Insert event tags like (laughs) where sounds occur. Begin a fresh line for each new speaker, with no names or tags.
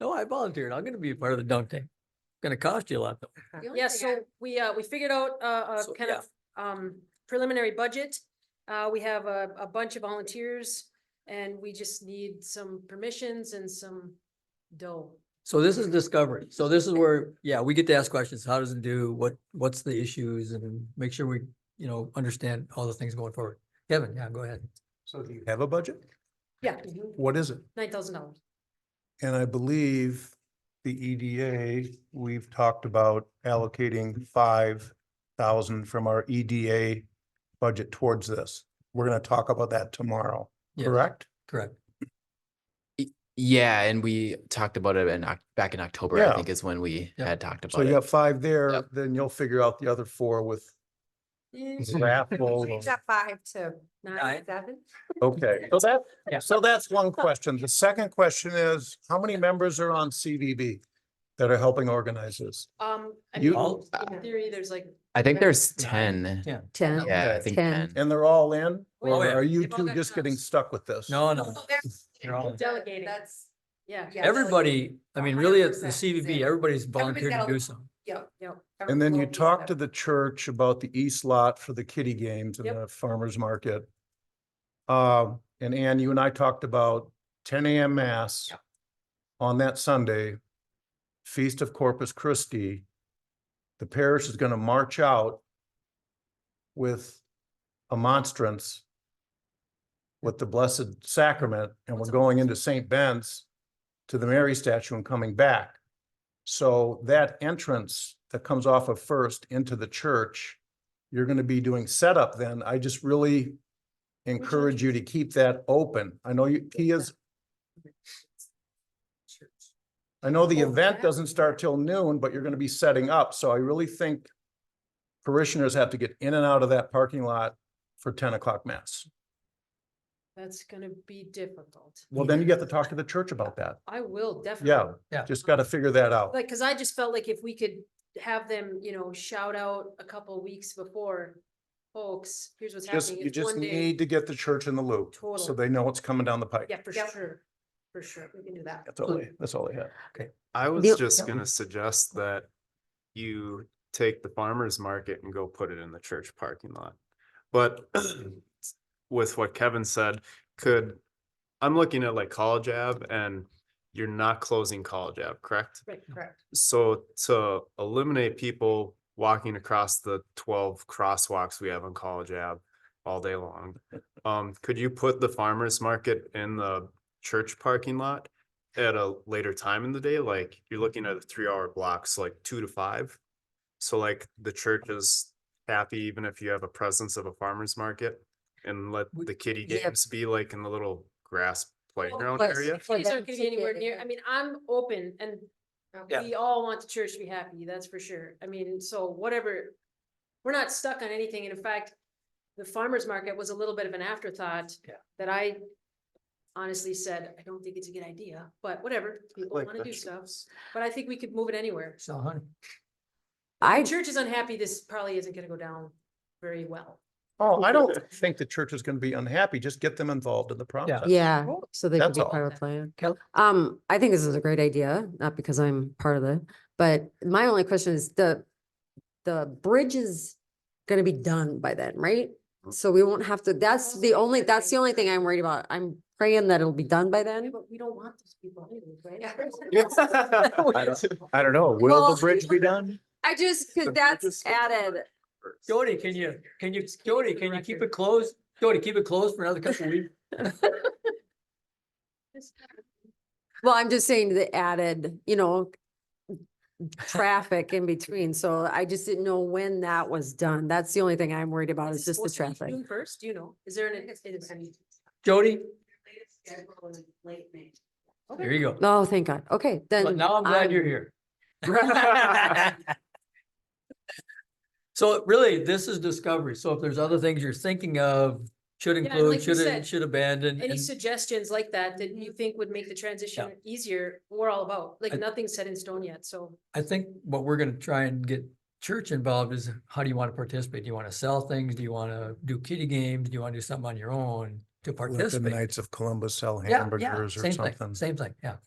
No, I volunteered. I'm gonna be a part of the dunk tank. Gonna cost you a lot though.
The only
Yeah,
thing I-
so we, uh, we figured out, uh,
So,
a kind of, um, preliminary budget. Uh, we have a, a bunch of volunteers and we just need some permissions and some dough.
So this is discovery. So this is where, yeah, we get to ask questions. How does it do? What, what's the issues and make sure we, you know, understand all the things going forward. Kevin, yeah, go ahead.
So do you have a budget?
Yeah,
What is it?
Mm-hmm. nine thousand dollars.
And I believe the EDA, we've talked about allocating five thousand from our EDA budget towards this. We're gonna talk about that tomorrow,
Yes,
correct?
Correct.
Yeah, and we talked about it in, Oc- back in October,
Yeah.
I think is when we
Yep.
had talked
So
about
you
it.
got five there,
Yep.
then you'll figure out the other four with
Change
raffle.
that five to nine,
Nine.
seven.
Okay, so that,
Yeah.
so that's one question. The second question is, how many members are on CVB that are helping organize this?
Um, I
You-
Oh,
mean,
All-
in theory, there's like.
I think there's ten.
Yeah.
Ten.
Yeah, I
Okay.
think
10.
ten.
And they're all in?
Oh,
Or
yeah.
are you
They've all
two
got
just getting
jobs.
stuck with this?
No, no,
Oh, there's-
You're all in.
Delegating.
That's,
Yeah.
Yeah.
everybody, I mean, really, it's the
100%
CVB,
zero.
everybody's volunteered to
got a-
do something.
yep, yep.
And then you talk to the church about the east lot for the kitty games and
Yep.
the farmer's market. Uh, and Ann, you and I talked about ten AM mass
Yep.
on that Sunday, Feast of Corpus Christi. The parish is gonna march out with a monstrance with the Blessed Sacrament, and we're
What's a
going into St. Ben's to the Mary statue and coming back. So that entrance that comes off of First into the church, you're gonna be doing setup then. I just really encourage you to keep that open. I know you, Pia's, I know the
Oh,
event
that-
doesn't start till noon, but you're gonna be setting up, so I really think parishioners have to get in and out of that parking lot for ten o'clock mass.
That's gonna be difficult.
Well, then you have to talk to the church about that.
I will definitely.
Yeah,
Yeah.
just gotta figure that out.
Like, cause I just felt like if we could have them, you know, shout out a couple weeks before, folks, here's what's
Just,
happening.
you
It's
just
one day."
need to get the church in the loop, so
Totally.
they know what's coming down the pike.
Yeah, for sure, for sure, we can do that.
That's all, I- that's all I have.
I
The-
was just
Yep.
gonna suggest that you take the farmer's market and go put it in the church parking lot. But (clears throat) with what Kevin said, could, I'm looking at like College Ave and you're not closing College Ave, correct?
Right, correct.
So to eliminate people walking across the twelve crosswalks we have on College Ave all day long. Um, could you put the farmer's market in the church parking lot at a later time in the day? Like you're looking at three hour blocks, like two to five. So like the church is happy even if you have a presence of a farmer's market and let
We-
the kiddie
Yeah.
games be like in the little grass playground
plus-
area.
For
These aren't
them
gonna
to
be anywhere
get
near,
it.
I mean, I'm open and
Okay.
we all want the church to be happy, that's for sure. I mean, so whatever. We're not stuck on anything. And in fact, the farmer's market was a little bit of an afterthought.
Yeah.
That I honestly said, I don't think it's a good idea, but whatever, people
like
wanna do stuff.
vegetables.
But I think we could move it anywhere.
So, honey,
The
I,
church is unhappy, this probably isn't gonna go down very well.
Oh, I don't (laughs) think the church is gonna be unhappy, just get them involved in the process.
yeah, so they could
That's
be
all.
part of the plan.
Kel-
Um, I think this is a great idea, not because I'm part of it, but my only question is the, the bridge is gonna be done by then, right? So we won't have to, that's the only, that's the only thing I'm worried about. I'm praying that it'll be done by
Yeah,
then.
But we don't want those people anyways,
I
right?
don't-
(laughs) I don't know,
Well-
will the bridge be done?
(laughs) I just,
The
cause
bridge is
that's
still not
added.
Jody, can you, can you, Jody, can you keep it closed? Jody, keep it closed for another couple of weeks?
(laughs)
Well, I'm just saying the added, you know, traffic in between. So I just didn't know when that was done. That's the only thing I'm worried about
Is
is Oh,
it
just the
supposed to be
traffic.
June First, do you know, is there an? is-
Jody,
Okay.
there you go.
Oh, thank God. Okay,
But
then.
now I'm glad you're here.
(laughs)
So really, this is discovery. So if there's other things you're thinking of, should
and like
include,
you
should,
said,
should abandon.
Any
and-
suggestions like that that you think would make the transition easier, we're all about, like
I-
nothing's set in stone yet, so.
I think what we're gonna try and get church involved is how do you wanna participate? Do you wanna sell things? Do you wanna do kitty games? Do you wanna do something on your own to
Let the
participate?
Knights of Columbus sell
Yeah, yeah,
hamburgers or
same thing,
something.
Same thing, yeah.